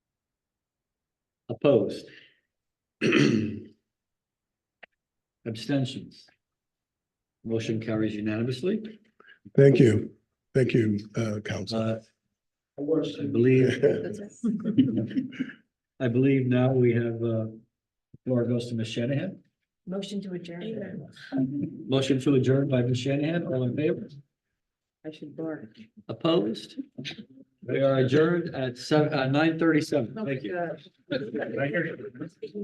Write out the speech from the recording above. Opposed? Abstentions? Motion carries unanimously. Thank you. Thank you, uh, council. Uh, I believe, I believe now we have, uh, floor goes to Ms. Shanahan. Motion to adjourn. Motion to adjourn by Ms. Shanahan, all in favor? I should bark. Opposed? We are adjourned at seven, uh, nine thirty-seven. Thank you. Thank you.